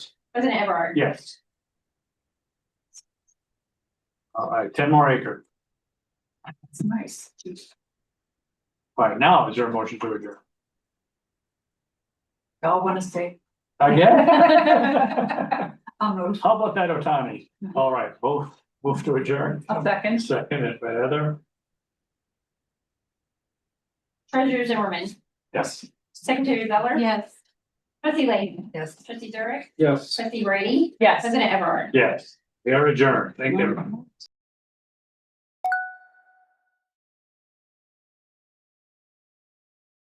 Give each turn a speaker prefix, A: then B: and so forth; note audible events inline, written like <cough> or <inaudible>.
A: President Everard.
B: Yes. All right, ten more acre.
A: It's nice.
B: All right, now is there a motion to adjourn?
A: Y'all wanna stay?
B: I guess.
A: <laughs> I'll move.
B: How about that, Otani? All right, both, move to adjourn.
A: A second.
B: Second, by Heather.
C: Treasurer Zimmerman,
B: Yes.
C: Secretary Zeller.
A: Yes.
C: Trustee Layton,
A: Yes.
C: Trustee Durick,
B: Yes.
C: Trustee Brady,
A: Yes.
C: President Everard.
B: Yes, we are adjourned. Thank you. everyone.